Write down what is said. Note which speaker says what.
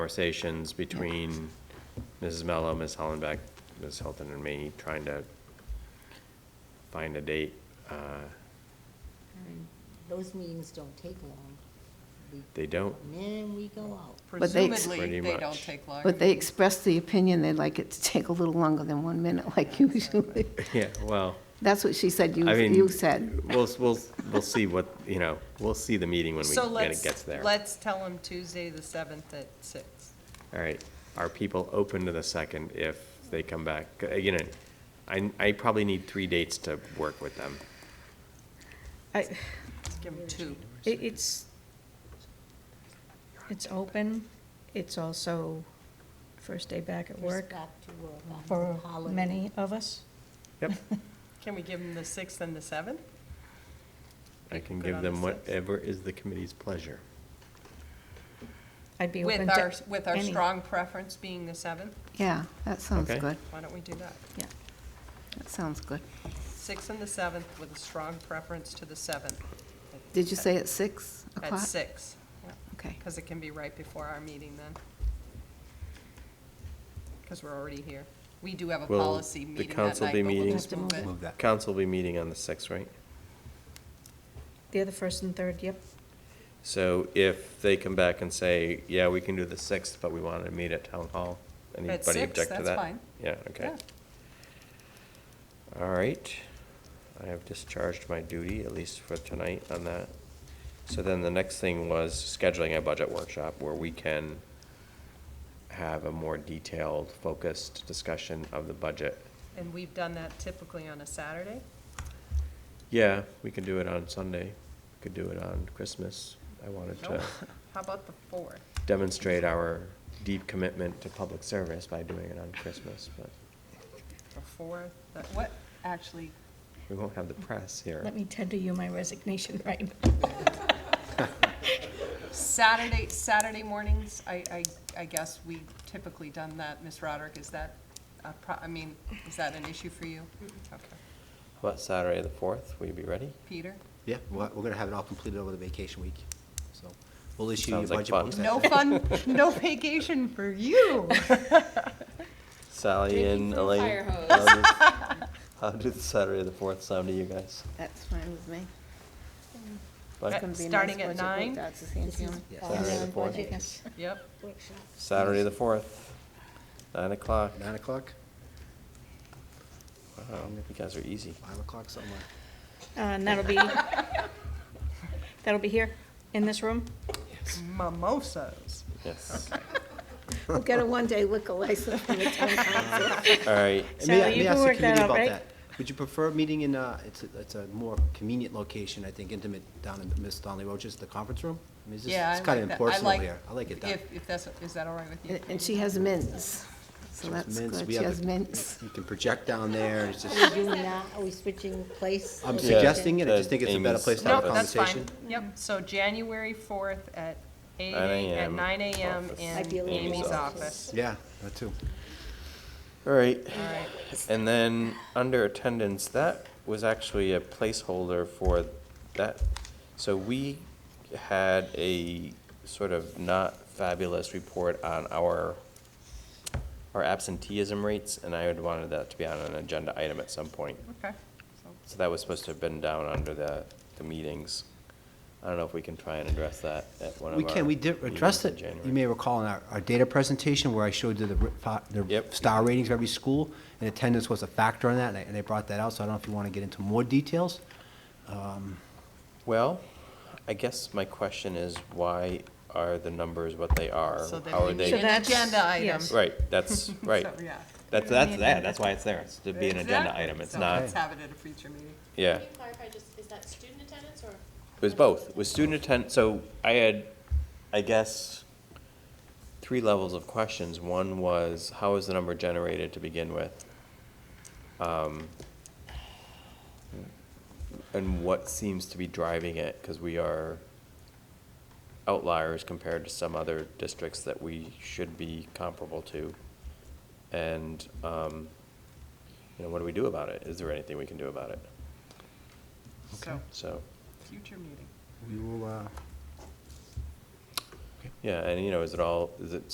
Speaker 1: conversations between Mrs. Mello, Ms. Hollenbeck, Ms. Hilton, and me, trying to find a date. Uh,
Speaker 2: And Those meetings don't take long. We
Speaker 1: They don't,
Speaker 2: come in, we go out.
Speaker 3: But
Speaker 1: Pretty
Speaker 3: they-
Speaker 4: Presumably, they don't
Speaker 1: much.
Speaker 4: take long.
Speaker 3: But they expressed the opinion they'd like it to take a little longer than one minute, like usually.
Speaker 1: yeah, well,
Speaker 3: That's what she said, you,
Speaker 1: I mean.
Speaker 3: you said.
Speaker 1: We'll, we'll, we'll see what, you know, we'll see the meeting when we,
Speaker 4: So
Speaker 1: when it
Speaker 4: let's,
Speaker 1: gets there.
Speaker 4: let's tell them Tuesday, the 7th at six.
Speaker 1: All right, are people open to the second if they come back? Uh, You know, I, I probably need three dates to work with them.
Speaker 5: I,
Speaker 4: Let's Give them two.
Speaker 5: it- it's, it's open, it's also first day back at
Speaker 2: First
Speaker 5: work
Speaker 2: back to work after
Speaker 5: for
Speaker 2: the holiday.
Speaker 5: many of us.
Speaker 1: Yep,
Speaker 4: Can we give them the 6th and the 7th?
Speaker 1: I can
Speaker 4: Good
Speaker 1: give
Speaker 4: on the
Speaker 1: them
Speaker 4: sixth.
Speaker 1: whatever is the committee's pleasure.
Speaker 5: I'd be open
Speaker 4: With
Speaker 5: to
Speaker 4: our, with our
Speaker 5: any.
Speaker 4: strong preference being the 7th?
Speaker 3: Yeah, that sounds
Speaker 1: Okay.
Speaker 3: good.
Speaker 4: Why don't we do that?
Speaker 3: Yeah, that sounds good.
Speaker 4: 6th and the 7th with a strong preference to the 7th.
Speaker 3: Did you say at six
Speaker 4: At
Speaker 3: o'clock?
Speaker 4: 6, yeah,
Speaker 3: Okay,
Speaker 4: because it can be right before our meeting then. Because we're already here. We do have a
Speaker 1: Will
Speaker 4: policy
Speaker 1: the
Speaker 4: meeting that night,
Speaker 1: council
Speaker 4: but
Speaker 1: be
Speaker 4: we'll
Speaker 1: meeting-
Speaker 4: just move it.
Speaker 6: Move that.
Speaker 1: Council will be meeting on the sixth, right?
Speaker 5: They're the first and third, yep.
Speaker 1: So if they come back and say, yeah, we can do the sixth, but we wanted to meet at town hall,
Speaker 4: At
Speaker 1: anybody
Speaker 4: six,
Speaker 1: object to that?
Speaker 4: that's fine.
Speaker 1: Yeah, okay. All right. I have discharged my duty, at least for tonight, on that. So then the next thing was scheduling a budget workshop where we can have a more detailed, focused discussion of the budget.
Speaker 4: And we've done that typically on a Saturday.
Speaker 1: Yeah, we could do it on Sunday, could do it on Christmas. I wanted
Speaker 4: Nope.
Speaker 1: to
Speaker 4: How about the 4th?
Speaker 1: demonstrate our deep commitment to public service by doing it on Christmas, but
Speaker 4: The 4th, the- what, actually,
Speaker 1: we won't have the press here.
Speaker 5: Let me tender you my resignation right
Speaker 4: Saturday, Saturday mornings, I, I, I guess we typically done that. Ms. Roderick, is that, a pro- I mean, is that an issue for you? Okay.
Speaker 1: What, Saturday the fourth? Will you be ready?
Speaker 4: Peter?
Speaker 6: Yeah, we're, we're gonna have it all completed over the vacation week, so we'll issue you a
Speaker 1: Sounds like
Speaker 6: budget
Speaker 1: fun.
Speaker 6: books.
Speaker 4: No fun, no vacation for you.
Speaker 1: Sally and Elaine. How does Saturday the fourth sound to you guys?
Speaker 3: that's fine with me.
Speaker 1: Like
Speaker 3: It's gonna be a nice
Speaker 4: Starting at
Speaker 3: budget work,
Speaker 4: nine?
Speaker 3: That's the same
Speaker 2: This is
Speaker 3: feeling.
Speaker 1: Saturday the
Speaker 2: all
Speaker 1: fourth.
Speaker 2: budget
Speaker 5: Yes.
Speaker 4: Yep.
Speaker 2: workshop.
Speaker 1: Saturday the fourth, nine o'clock.
Speaker 6: Nine o'clock,
Speaker 1: Wow, you guys are easy.
Speaker 6: five o'clock, something like.
Speaker 5: Uh, And that'll be, that'll be here, in this room.
Speaker 4: Mimosas.
Speaker 1: Yes.
Speaker 3: We'll get a one-day liquor license from the town council.
Speaker 1: All right.
Speaker 6: And may I-
Speaker 5: Sally, you can
Speaker 6: may I ask the
Speaker 5: work that
Speaker 6: committee
Speaker 5: out,
Speaker 6: about
Speaker 5: right?
Speaker 6: Would you prefer meeting in, uh, it's, a- it's a more convenient location, I think, intimate, down in Miss Donnelly Roach's, the conference room? I mean, it's just-
Speaker 4: Yeah.
Speaker 6: It's
Speaker 4: I
Speaker 6: kinda
Speaker 4: like that. I
Speaker 6: impersonal
Speaker 4: like-
Speaker 6: here, I like it down.
Speaker 4: If, if that's, is that all right with you?
Speaker 3: And- And she has mints, so
Speaker 6: It's
Speaker 3: that's
Speaker 6: mints.
Speaker 3: good.
Speaker 6: We
Speaker 3: She
Speaker 6: have
Speaker 3: has
Speaker 6: the-
Speaker 3: mints.
Speaker 6: You can project down there, it's
Speaker 2: Are we
Speaker 6: just,
Speaker 2: doing that? Are we switching place?
Speaker 6: I'm
Speaker 2: Or-
Speaker 6: suggesting it, I
Speaker 1: Uh,
Speaker 6: just think it's a better
Speaker 1: Amy's
Speaker 6: place to have a
Speaker 4: No,
Speaker 1: Nope,
Speaker 4: that's
Speaker 6: conversation.
Speaker 4: fine. Yep, so January 4th at 8,
Speaker 1: 9
Speaker 4: a- at
Speaker 1: a.m.
Speaker 4: 9 a.m.
Speaker 1: office.
Speaker 4: in
Speaker 2: Might be a little
Speaker 4: Amy's
Speaker 2: late.
Speaker 4: office.
Speaker 6: Yeah, that too.
Speaker 1: All right.
Speaker 4: All right.
Speaker 1: And then, under attendance, that was actually a placeholder for that. So we had a sort of not fabulous report on our, our absenteeism rates, and I had wanted that to be on an agenda item at some point.
Speaker 4: Okay. So
Speaker 1: So that was supposed to have been down under the, the meetings. I don't know if we can try and address that at one of
Speaker 6: We
Speaker 1: our.
Speaker 6: can, we did address
Speaker 1: meetings
Speaker 6: it.
Speaker 1: in
Speaker 6: You
Speaker 1: January.
Speaker 6: may recall in our, our data presentation where I showed you the, ri- fa- the
Speaker 1: Yep.
Speaker 6: star ratings of every school, and attendance was a factor in that, and I- and I brought that out, so I don't know if you want to get into more details.
Speaker 1: Well, I guess my question is, why are the numbers what they are?
Speaker 4: So then
Speaker 1: How
Speaker 4: we
Speaker 1: are
Speaker 4: need
Speaker 1: they?
Speaker 4: an
Speaker 5: that's-
Speaker 4: agenda item.
Speaker 5: yes.
Speaker 1: Right, that's, right.
Speaker 4: So, yeah.
Speaker 1: That's, that's that, that's why it's there, it's to be an agenda
Speaker 4: Exactly.
Speaker 1: item, it's
Speaker 4: So
Speaker 1: not,
Speaker 4: Let's have it at a future meeting.
Speaker 1: yeah.
Speaker 7: Can you clarify, just, is that student attendance or?
Speaker 1: It was both, it was student attend, so I had, I guess, three levels of questions. One was, how is the number generated to begin with? Um, And what seems to be driving it, because we are outliers compared to some other districts that we should be comparable to. And, um, you know, what do we do about it? Is there anything we can do about it?
Speaker 4: So,
Speaker 1: So.
Speaker 4: future meeting.
Speaker 6: We will, uh,
Speaker 1: Yeah, and you know, is it all, is it